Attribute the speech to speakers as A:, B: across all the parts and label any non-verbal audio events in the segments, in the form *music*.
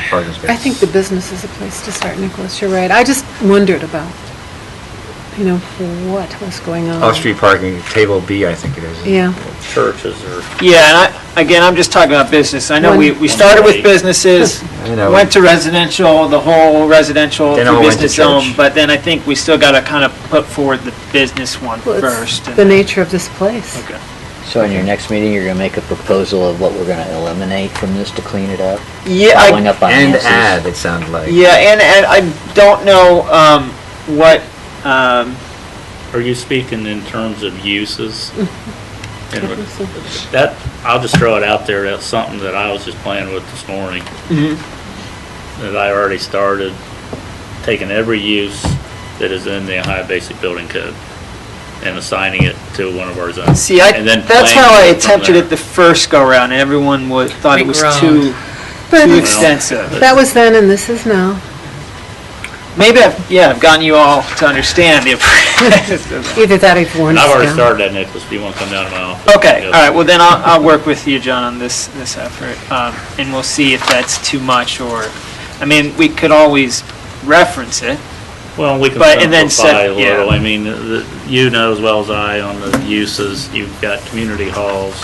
A: parking space.
B: I think the business is a place to start, Nicholas, you're right. I just wondered about, you know, what was going on.
A: Off-street Oh, parking, table B, I think it is.
B: Yeah.
C: churches or,
D: Yeah, and I, again, I'm just talking about business. I know we, we started with businesses,
A: *laughs* I know.
D: went to residential, the whole residential
A: Then
D: through
A: all went to
D: business
A: church.
D: zone, but then I think we still got to kind of put forward the business one
B: Well, it's
D: first. and
B: The
D: then-
B: nature of this place.
D: Okay.
E: So in your next meeting, you're gonna make a proposal of what we're gonna eliminate from this to clean it up?
D: Yeah,
E: Following
D: I,
E: up on
A: And
E: Nancy's.
A: add, it sounded like.
D: yeah, and, and I don't know, um, what, um,
C: are you speaking in terms of
D: *laughs*
C: uses?
B: I
C: And
B: think so.
C: That, I'll just throw it out there, that's something that I was just playing with this morning,
A: Mm-hmm.
C: that I already started, taking every use that is in the Ohio Basic Building Code and assigning it to one of our zones.
D: see, I,
C: And then
D: that's
C: playing
D: how I
C: from
D: attempted
C: there.
D: it the first go-round, and everyone was, thought it was too,
B: But *laughs*
D: too
B: it's-
D: extensive.
B: that was then and this is now.
D: Maybe I've, yeah, I've gotten you all to understand the *laughs*
A: *laughs*
B: Either that or you've worn
C: And I've
B: us
C: already
B: down.
C: started that, Nicholas, do you want to come down to my office?
D: Okay, all right, well then I'll, I'll work with you, John, on this, this effort, um, and we'll see if that's too much or, I mean, we could always reference it.
C: Well, we can
D: But- and then
C: simplify
D: set-
C: a little.
D: yeah.
C: I mean, the- you know as well as I on the uses, you've got community halls,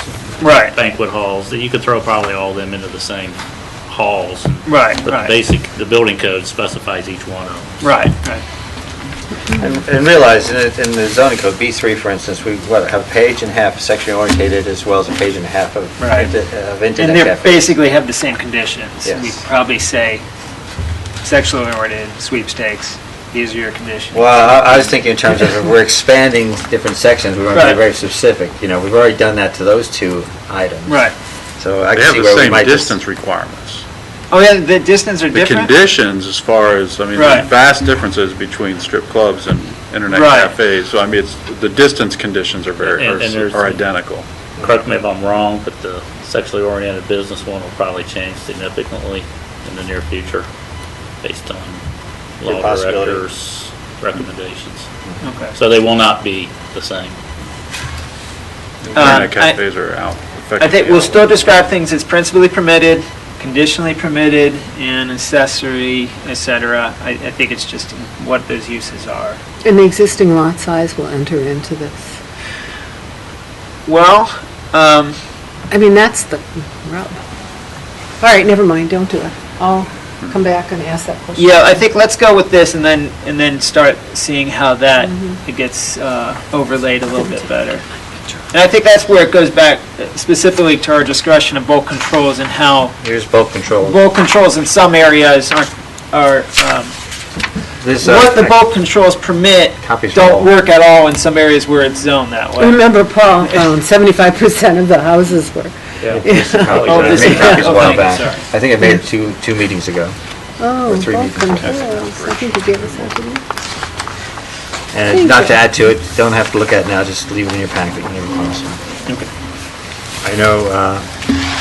D: Right.
C: banquet halls, that you could throw probably all them into the same halls.
D: Right,
C: But the
D: right,
C: basic, the building code specifies each one of them.
D: right, right.
A: And and realize, in the- in the zoning code, B3, for instance, we, what, have a page and a half sexually orientated as well as a page and a half of
D: Right.
A: of
D: And
A: internet
D: they
A: cafe.
D: basically have the same conditions.
A: Yes.
D: We probably say sexually oriented sweepstakes, these are your conditions.
A: Well, I- I was thinking in terms of, we're expanding different sections, we want to be
D: Right.
A: very specific, you know, we've already done that to those two items.
D: Right.
A: So I
F: They
A: can
F: have
A: see
F: the
A: where we
F: same
A: might just...
F: distance requirements.
D: Oh, yeah, the distance are
F: The
D: different?
F: conditions as far as, I mean,
D: Right.
F: there's vast differences between strip clubs and internet
D: Right.
F: cafes. So I mean, it's, the distance conditions are very,
C: And- and there's-
F: are are identical.
C: Correct me if I'm wrong, but the sexually oriented business one will probably change significantly in the near future based on
A: Good
C: law
A: possibility.
C: directors' recommendations.
D: Okay.
C: So they will not be the same.
F: Internet
D: I-
F: cafes are out.
D: I think
F: effectively
D: we'll
F: out.
D: still describe things as principally permitted, conditionally permitted, and accessory, et cetera. I, I think it's just what those uses are.
B: And the existing lot size will enter into this.
D: Well, um,
B: I mean, that's the rub. All right, never mind, don't do it. I'll come back and ask that question.
D: yeah, I think let's go with this and then, and then start seeing how that it gets uh, overlaid a little bit better. And I think that's where it goes back uh, specifically to our discussion of bulk controls and how
A: Here's bulk control.
D: bulk controls in some areas aren't, are, um,
A: This, uh, *laughs*
D: what the bulk controls permit
A: Copies from
D: don't
A: all-
D: work at all in some areas where it's zoned that way.
B: Remember, Paul owned 75% of the houses were,
D: Oh,
A: I
D: this
A: made
D: is-
A: copies *laughs* a while
D: okay,
A: back.
D: sorry.
A: I think I made it two, two meetings ago.
B: oh,
A: Or three
B: bulk
A: meetings ago.
B: controls. I think you gave us that, didn't you?
A: And not to add to it, don't have to look at it now, just leave it in your packet whenever it comes. I know, uh,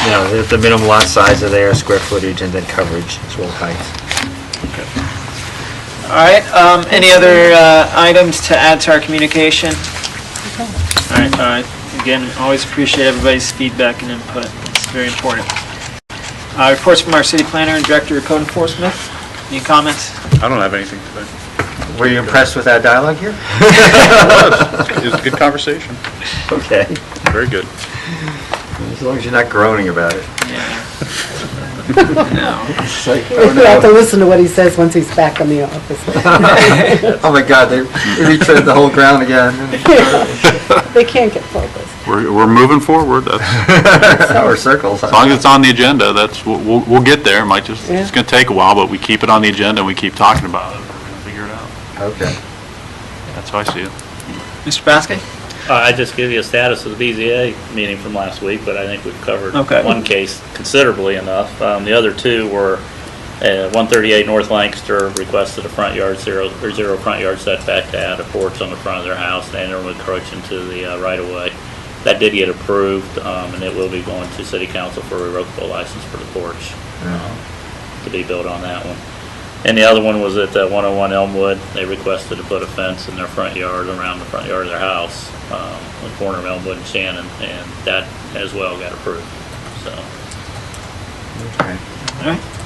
A: you know, the- the minimum lot size are there, square footage, and then coverage, as well as height.
D: All right, um, any other, uh, items to add to our communication? All right, all right, again, always appreciate everybody's feedback and input, it's very important. Uh, reports from our city planner and director of code enforcement, any comments?
F: I don't have anything today.
A: Were you impressed with that dialogue *laughs* here?
F: It was a good conversation.
A: Okay,
F: Very good.
A: as long as you're not groaning about it. *laughs*
D: No.
A: It's like,
B: We
A: oh
B: have to
A: no,
B: listen to what he says once he's back in the office. *laughs*
A: *laughs* oh my God, they they retread the whole ground again, *laughs*
B: They can't get focused.
F: We're, we're moving forward. That's-
A: or circles.
F: As long as it's on the agenda, that's, we'll- we'll, we'll get there. It might just, it's
B: Yeah.
F: going to take a while, but we keep it on the agenda and we keep talking about it. We're going to figure it out.
A: Okay.
F: That's how I see it.
D: Mr. Baskin?
C: Uh, I just give you a status of the BZA meeting from last week, but I think we've covered
D: Okay.
C: one case considerably enough. Um, The other two were uh, 138 North Lancaster requested a front yard zero, or zero front yard setback to add a porch on the front of their house, and they were encroaching to the uh, right-of-way. That did get approved, um, and it will be going to city council for a revocable license for the porch um, to be built on that one. And the other one was at uh, 101 Elmwood. They requested to put a fence in their front yard, around the front yard of their house, um, on the corner of Elmwood and Shannon, and that as well got approved, so.
A: Okay.
D: All right.